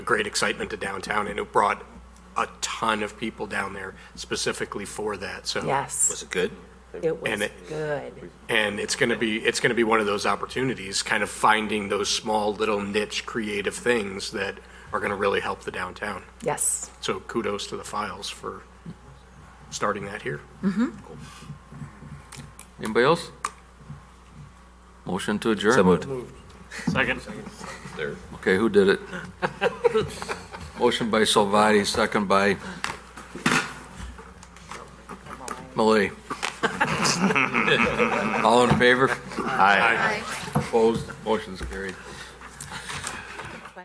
great excitement to downtown, and it brought a ton of people down there specifically for that, so. Yes, it good? it was And it- good. And it's going to be, it's going to be one of those opportunities, kind of finding those small, little niche, creative things that are going to really help the downtown. Yes. So kudos to the files for starting that here. Anybody else? Motion to adjourn. So moved. Second. Third. Okay, who did it? Motion by Salvati, second by Malay. All in favor? Aye. Opposed? Motion's carried.